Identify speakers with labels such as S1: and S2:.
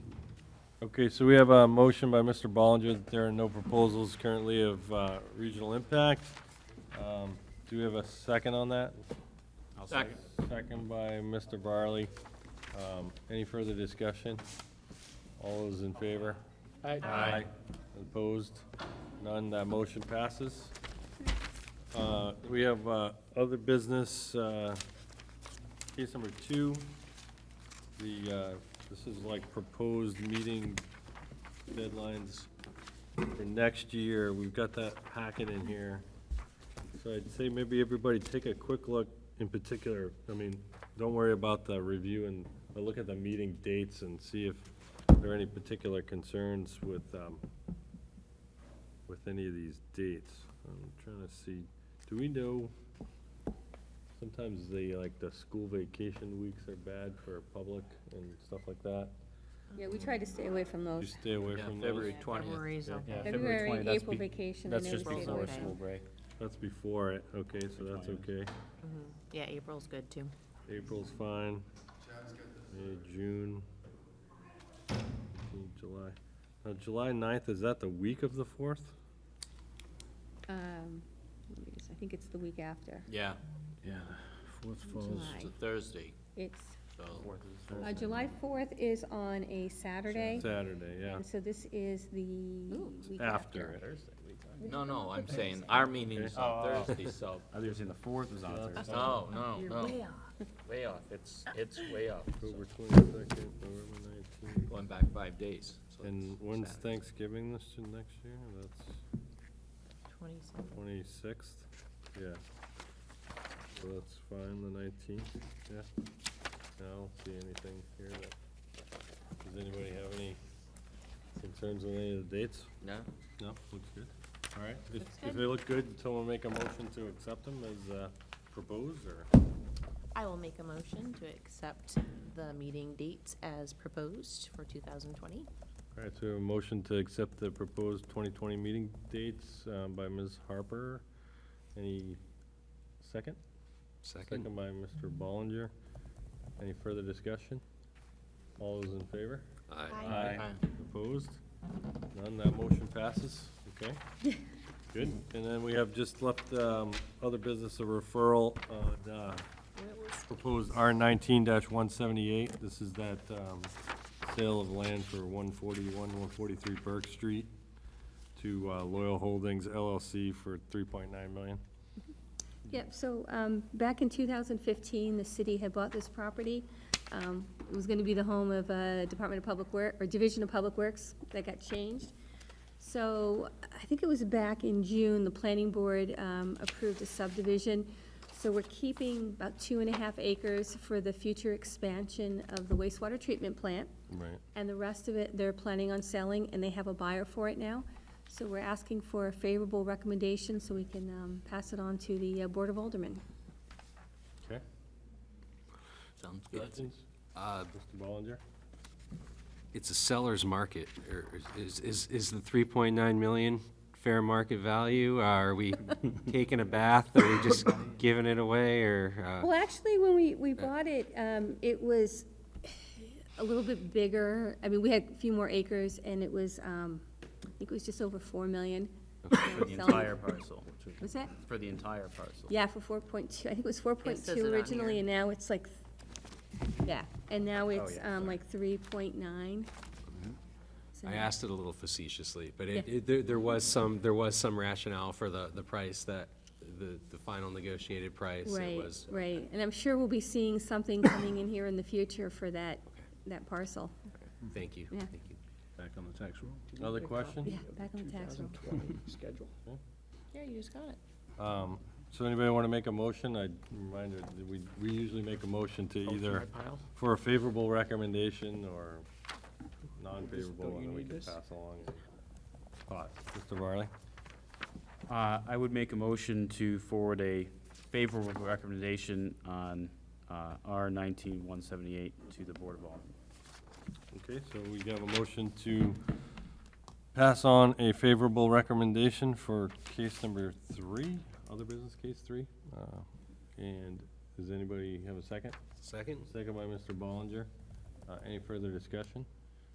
S1: Okay, so we have a motion by Mr. Ballinger that there are no proposals currently of uh, regional impact. Um, Do we have a second on that?
S2: I'll second.
S1: Second by Mr. Barley. Um, Any further discussion? All those in favor?
S2: Aye.
S1: Opposed? None, that motion passes. Uh, We have uh, other business, uh, case number two. The, uh, this is like proposed meeting deadlines for next year. We've got that packet in here. So I'd say maybe everybody take a quick look in particular. I mean, don't worry about the review and, but look at the meeting dates and see if there are any particular concerns with, um, with any of these dates. I'm trying to see, do we know, sometimes they, like, the school vacation weeks are bad for public and stuff like that.
S3: Yeah, we try to stay away from
S1: You
S3: those.
S1: stay away
S2: Yeah,
S1: from those.
S2: February twentieth.
S4: February's okay.
S5: Yeah, February
S3: February,
S5: 20, that's
S3: April
S5: be-
S3: vacation, I
S5: That's
S3: never
S5: just
S3: stay away
S5: before
S3: from.
S4: Labor Day.
S5: school break.
S1: That's before it, okay, so that's okay.
S4: Yeah, April's good too.
S1: April's fine. May, June, June, July. Now, July ninth, is that the week of the fourth?
S3: Um, let me just- I think it's the week after,
S2: Yeah,
S5: Yeah, fourth
S3: July.
S2: it's a Thursday,
S3: It's,
S2: so.
S3: uh, July fourth is on a Saturday,
S1: Saturday, yeah.
S3: and so this is the week
S1: After
S3: after.
S1: it.
S2: No, no, I'm saying our meeting is on
S5: Oh, oh, oh.
S2: Thursday, so,
S5: I was saying the fourth was on Thursday.
S2: no, no, no,
S4: off.
S2: way off, it's, it's way off. so
S1: October twenty-second, November nineteenth.
S2: Going back five days. so
S1: And
S2: it's
S1: when's
S2: Saturday.
S1: Thanksgiving this, year- next year? That's
S4: Twenty-seven.
S1: twenty-sixth? Yeah. So that's fine, the nineteenth, yeah. I don't see anything here that, does anybody have any concerns with any of the dates?
S2: No,
S1: No, looks good. All right, if,
S4: Looks
S1: if
S4: good.
S1: they look good, someone make a motion to accept them as, uh, proposed, or?
S4: I will make a motion to accept the meeting dates as proposed for two thousand twenty.
S1: All right, so a motion to accept the proposed 2020 meeting dates um, by Ms. Harper. Any second? Second by Mr. Ballinger. Any further discussion? All those in favor?
S4: Aye.
S2: Aye.
S1: Opposed? None, that motion passes, okay? Good, and then we have just left um, other business, a referral on uh, proposed R nineteen one seventy-eight. This is that, um, sale of land for one forty-one, one forty-three Burke Street to uh, Loyal Holdings LLC for three point nine million.
S3: Yep, so, um, back in two thousand fifteen, the city had bought this property. Um, it was gonna be the home of, uh, Department of Public Work, or Division of Public Works, that got changed. So, I think it was back in June, the planning board, um, approved a subdivision. So we're keeping about two and a half acres for the future expansion of the wastewater treatment plant.
S1: Right.
S3: And the rest of it, they're planning on selling, and they have a buyer for it now. So we're asking for a favorable recommendation so we can um, pass it on to the uh, Board of Aldermen.
S1: Okay.
S2: Sounds good.
S1: Questions? Mr.
S6: Uh,
S1: Ballinger?
S6: It's a seller's market, or is, is, is the three point nine million fair market value? Uh, Are we taking a bath, are we just giving it away, or, uh,
S3: Well, actually, when we, we bought it, um, it was a little bit bigger. I mean, we had a few more acres, and it was, um, I think it was just over 4 million.
S5: For the entire parcel.
S3: Was that?
S5: For the entire parcel.
S3: Yeah, for 4.2, I think it was
S4: It says it
S3: 4.2
S4: on
S3: originally,
S4: here.
S3: and now it's like, yeah, and now it's
S5: yeah,
S3: um,
S5: sorry.
S3: like 3.9.
S6: uh,
S3: So
S6: I
S3: now-
S6: asked it a little facetiously, but it,
S3: Yeah.
S6: it, there, there was some, there was some rationale for the, the price that, the, the final negotiated price. It
S3: Right,
S6: was
S3: right, and I'm sure we'll be seeing something coming in here in the future for that, that parcel.
S6: Thank you,
S3: Yeah.
S6: thank you.
S5: Back on the tax roll.
S1: Other question?
S3: Yeah, back on the tax roll.
S5: Schedule.
S4: Yeah, you just got it.
S1: Um, so anybody want to make a motion? I, reminder, that we, we usually make a motion to either for a favorable recommendation or non-favorable,
S5: you
S1: and then we
S5: need
S1: can
S5: this?
S1: pass along. your Thoughts, Mr. Varley?
S5: Uh, I would make a motion to forward a favorable recommendation on, uh, R nineteen one seventy-eight to the Board of Aldermen.
S1: Okay, so we have a motion to pass on a favorable recommendation for case number three, other business case three. Uh, And does anybody have a second?
S6: Second?
S1: Second by Mr. Ballinger. Uh, Any further discussion?